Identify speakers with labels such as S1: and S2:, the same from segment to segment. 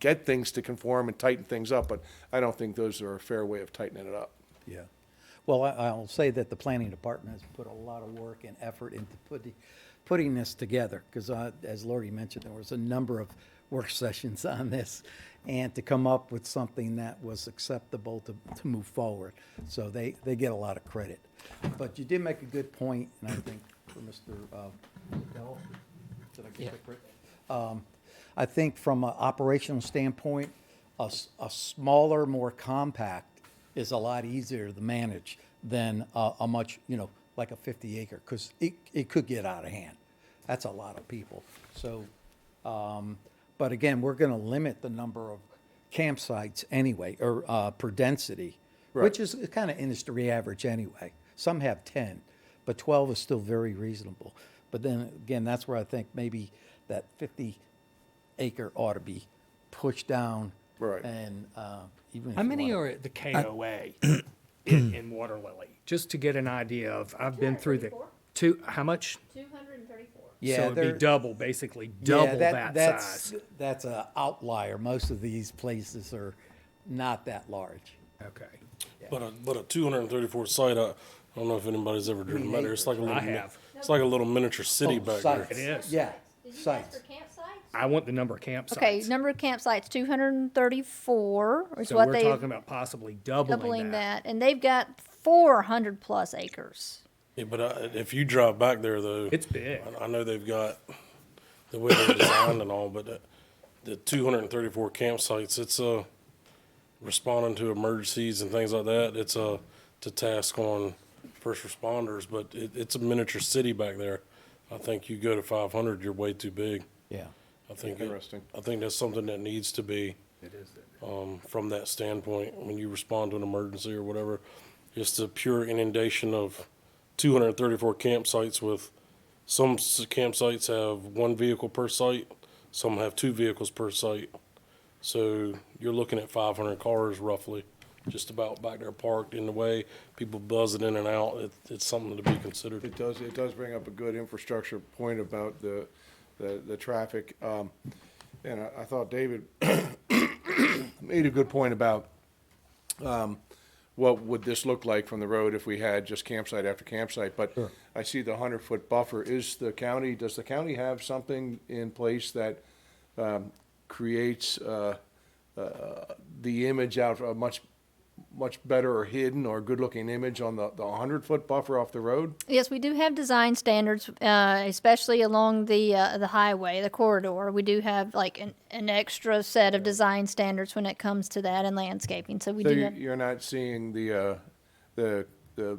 S1: get things to conform and tighten things up, but I don't think those are a fair way of tightening it up.
S2: Yeah. Well, I, I'll say that the planning department has put a lot of work and effort into putting, putting this together. Because as Lori mentioned, there was a number of work sessions on this. And to come up with something that was acceptable to, to move forward. So they, they get a lot of credit. But you did make a good point, and I think for Mr. uh, Bell, did I get that correct? Um, I think from an operational standpoint, a, s- a smaller, more compact is a lot easier to manage than a, a much, you know, like a 50 acre, because it, it could get out of hand. That's a lot of people. So, um, but again, we're going to limit the number of campsites anyway, or uh, per density, which is kind of industry average anyway. Some have 10, but 12 is still very reasonable. But then again, that's where I think maybe that 50 acre ought to be pushed down.
S1: Right.
S2: And uh, even if
S3: How
S2: you
S3: many
S2: wanna-
S3: are at the KOA in, in Water Lily? Just to get an idea of, I've been through the,
S4: 234.
S3: two, how much?
S4: Two hundred and thirty-four.
S2: Yeah,
S3: So it'd
S2: they're-
S3: be double, basically
S2: Yeah,
S3: double that
S2: that's,
S3: size.
S2: That's an outlier. Most of these places are not that large.
S3: Okay.
S5: But a, but a 234 site, I, I don't know if anybody's ever driven by there. It's like a little,
S3: I
S5: mi-
S3: have.
S5: it's like a little miniature city
S2: Oh,
S5: back
S2: sites.
S5: there.
S3: It is.
S2: Yeah,
S4: Did you ask
S2: sites.
S4: for campsites?
S3: I want the number of campsites.
S4: Okay, number of campsites, two hundred and thirty-four is
S3: So
S4: what
S3: we're
S4: they
S3: talking about possibly doubling,
S4: doubling
S3: that.
S4: that, and they've got four hundred plus acres.
S5: Yeah, but I, if you drive back there though,
S3: It's big.
S5: I, I know they've got the way they're designed and all, but the, the 234 campsites, it's uh responding to emergencies and things like that. It's a to task on first responders, but it, it's a miniature city back there. I think you go to 500, you're way too big.
S2: Yeah.
S5: I think, it-
S1: Interesting.
S5: I think that's something that needs to be, um, from that standpoint, when you respond to an emergency or whatever. Just the pure inundation of two hundred and thirty-four campsites with, some s- campsites have one vehicle per site, some have two vehicles per site. So you're looking at five hundred cars roughly, just about back there parked in the way, people buzzing in and out. It, it's something to be considered.
S1: It does, it does bring up a good infrastructure point about the, the, the traffic. Um, and I, I thought David made a good point about, um, what would this look like from the road if we had just campsite after campsite? But I see the hundred foot buffer. Is the county, does the county have something in place that, um, creates, uh, uh, the image out, a much, much better or hidden or good looking image on the, the hundred foot buffer off the road?
S4: Yes, we do have design standards, uh, especially along the, uh, the highway, the corridor. We do have like an, an extra set of design standards when it comes to that and landscaping, so we
S1: So
S4: do
S1: you-
S4: have.
S1: you're not seeing the, uh, the, the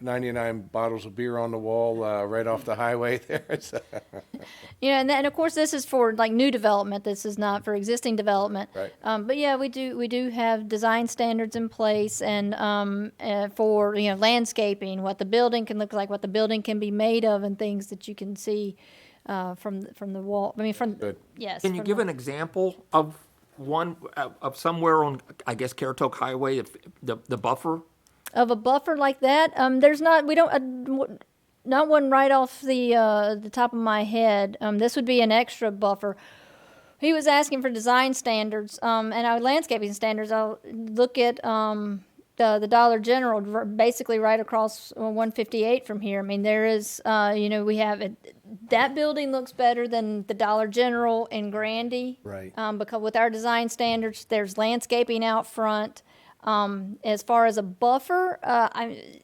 S1: 199 bottles of beer on the wall uh, right off the highway there? It's, uh,
S4: You know, and, that, and of course, this is for like new development. This is not for existing development.
S1: Right.
S4: Um, but yeah, we do we do have design standards in place, and um, uh, for you know landscaping, what the building can look like, what the building can be made of, and things that you can see uh, from the- from the wall. I mean, from
S1: Good.
S4: yes.
S6: Can you
S4: from
S6: give
S4: the-
S6: an example of one, of of somewhere on, I guess, Caratoke Highway, if, the, the buffer?
S4: of a buffer like that. Um, there's not we don't uh, w- not one right off the uh, the top of my head. Um, this would be an extra buffer. He was asking for design standards um, and our landscaping standards. I'll look at um, the the Dollar General, r- basically right across uh, 158 from here. I mean, there is uh, you know we have it, that building looks better than the Dollar General in Grandy,
S2: Right.
S4: Um, because with our design standards, there's landscaping out front. Um, as far as a buffer, uh, I,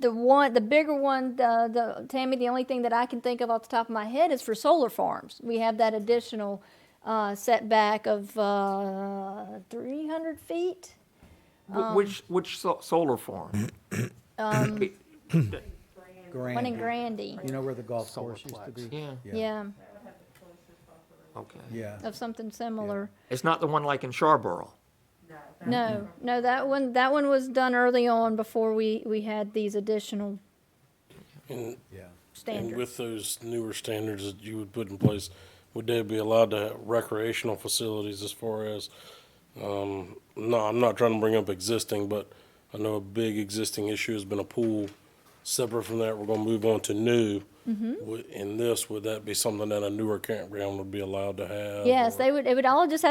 S4: the one, the bigger one, the, the, Tammy, the only thing that I can think of off the top of my head is for solar farms. We have that additional, uh, setback of, uh, three hundred feet.
S6: Wh- Which, which so- solar farm?
S4: One in
S2: Grand.
S4: Grandy,
S2: You know where the golf course used to be?
S6: Yeah,
S4: yeah,
S6: okay.
S2: Yeah.
S4: of something similar.
S6: It's not the one like in Charborough?
S4: No,
S2: Mm-hmm.
S4: no, that one, that one was done early on before we, we had these additional
S5: And
S2: Yeah.
S5: And
S4: standards.
S5: with those newer standards that you would put in place, would they be allowed to have recreational facilities as far as, um, no, I'm not trying to bring up existing, but I know a big existing issue has been a pool. Separate from that, we're gonna move on to new.
S4: Mm-hmm.
S5: Would- In this, would that be something that a newer campground would be allowed to have?
S4: Yes,
S5: or-
S4: they would, it would all just have